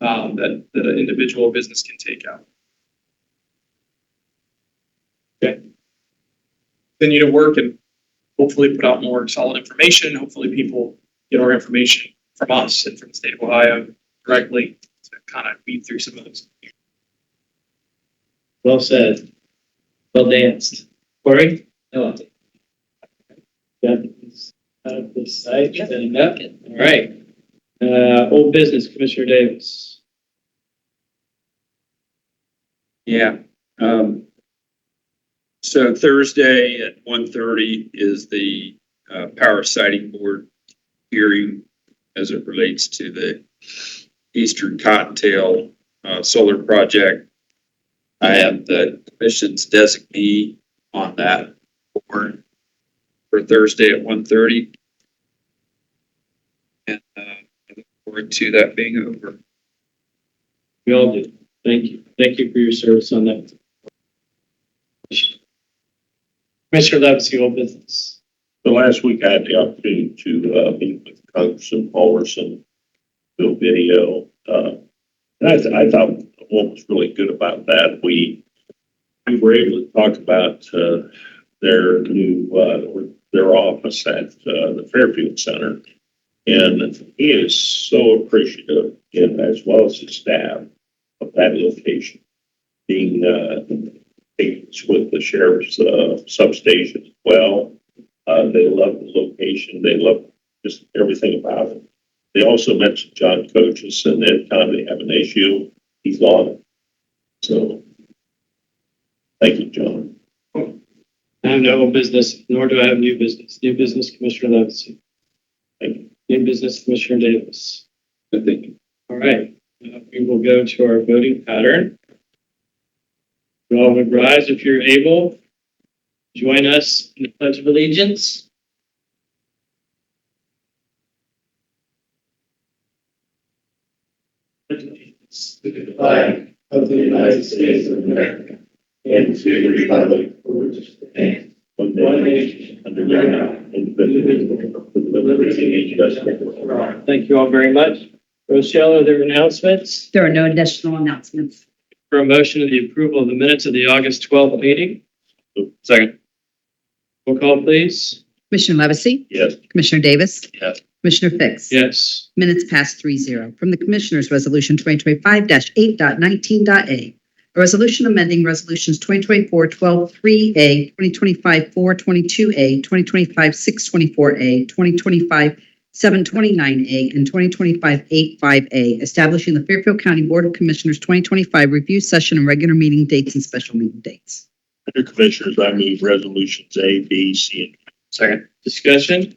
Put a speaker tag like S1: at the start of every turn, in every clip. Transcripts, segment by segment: S1: amount um, that, that an individual business can take out. Okay. Continue to work and hopefully put out more solid information. Hopefully people get our information from us and from the state of Ohio directly to kind of weed through some of those.
S2: Well said. Well danced. Corey? No update. Got this out of this site, setting up. All right. Uh, old business, Commissioner Davis.
S3: Yeah, um. So Thursday at one thirty is the uh power sighting board hearing as it relates to the Eastern Cottontail uh solar project. I am the commission's designee on that board for Thursday at one thirty. And uh I look forward to that being over.
S2: We all do. Thank you. Thank you for your service on that. Commissioner Levesey, old business.
S4: So last week I had the opportunity to, uh, meet with Congressman Paulson, do a video, uh, and I, th- I thought what was really good about that, we, we were able to talk about, uh, their new, uh, or their office at, uh, the Fairfield Center. And he is so appreciative, and as well as his staff, of that location being, uh, taken with the sheriff's, uh, substation as well. Uh, they love the location. They love just everything about it. They also mentioned John Coaches and every time they have an issue, he's on it. So, thank you, John.
S2: I have no old business, nor do I have new business. New business, Commissioner Levesey.
S4: Thank you.
S2: New business, Commissioner Davis.
S3: I think
S2: All right, uh, we will go to our voting pattern. You all would rise if you're able. Join us in the pledge of allegiance.
S5: to the flag of the United States of America and to the republic for which it stands,
S4: One
S5: one
S4: day,
S5: nation,
S4: under God, indivisible, with liberty and justice for all.
S5: all.
S2: Thank you all very much. Rochelle, are there announcements
S6: There are no additional announcements.
S2: for a motion of the approval of the minutes of the August 12th meeting?
S3: Second.
S2: Roll call, please.
S6: Commissioner Levesey?
S4: Yes.
S6: Commissioner Davis?
S3: Yes.
S6: Commissioner Fix?
S2: Yes.
S6: Minutes past three zero. From the Commissioners' Resolution 2025-8.19.a. A resolution amending Resolutions 2024-12-3A, 2025-422A, 2025-624A, 2025-729A, and 2025-85A, establishing the Fairfield County Board of Commissioners 2025 review session and regular meeting dates and special meeting dates.
S4: Under Commissioners, I move resolutions A, B, C, and
S3: Second.
S2: Discussion?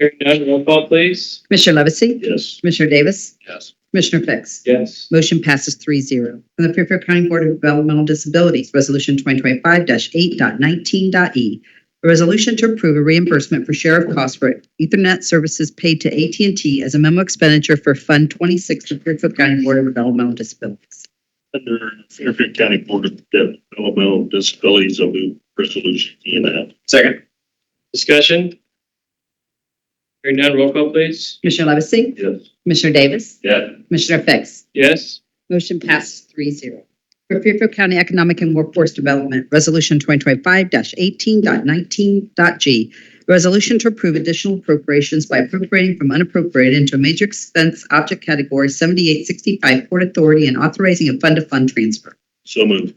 S2: Hearing none, roll call, please.
S6: Commissioner Levesey?
S4: yes.
S6: Commissioner Davis?
S3: Yes.
S6: Commissioner Fix?
S2: Yes.
S6: Motion passes three zero. From the Fairfield County Board of Developmental Disabilities, Resolution 2025-8.19.e. E. A resolution to approve a reimbursement for sheriff costs for Ethernet services paid to at and T as a memo expenditure for Fund 26 of Fairfield County Board of Developmental Disabilities.
S4: Under Fairfield County Board of Developmental Disabilities, I move resolution E and F.
S3: Second.
S2: Discussion? Hearing none, roll call, please.
S6: Commissioner Levesey?
S4: Yes.
S6: Commissioner Davis?
S4: Yes.
S6: Commissioner Fix?
S2: Yes.
S6: Motion passes three zero. For Fairfield County Economic and Workforce Development, Resolution 2025-18.19.g. a Resolution to approve additional appropriations by appropriating from unappropriated into a major expense object category 7865 Port Authority and authorizing a fund-to-fund transfer.
S4: So moved.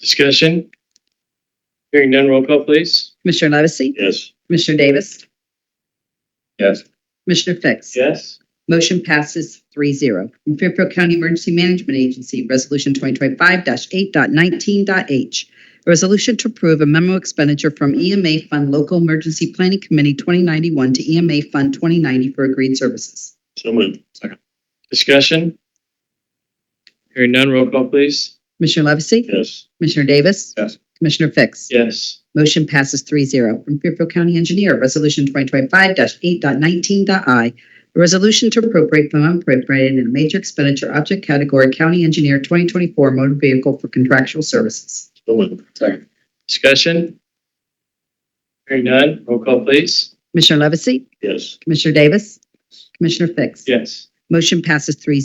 S2: Discussion? Hearing none, roll call, please.
S6: Commissioner Levesey?
S4: Yes.
S6: Commissioner Davis?
S3: Yes.
S6: Commissioner Fix?
S2: Yes.
S6: Motion passes three zero. From Fairfield County Emergency Management Agency, Resolution 2025-8.19.h. A resolution to approve a memo expenditure from EMA Fund Local Emergency Planning Committee 2091 to EMA Fund 2090 for agreed services.
S4: So moved.
S2: Discussion? Hearing none, roll call, please.
S6: Commissioner Levesey?
S4: Yes.
S6: Commissioner Davis?
S3: Yes.
S6: Commissioner Fix?
S2: Yes.
S6: Motion passes three zero. From Fairfield County Engineer, Resolution 2025-8.19.i. A resolution to appropriate from unappropriated in a major expenditure object category County Engineer 2024 motor vehicle for contractual services.
S4: So moved.
S3: Second.
S2: Discussion? Hearing none, roll call, please.
S6: Commissioner Levesey?
S4: Yes.
S6: Commissioner Davis? Commissioner Fix?
S2: Yes.
S6: Motion passes three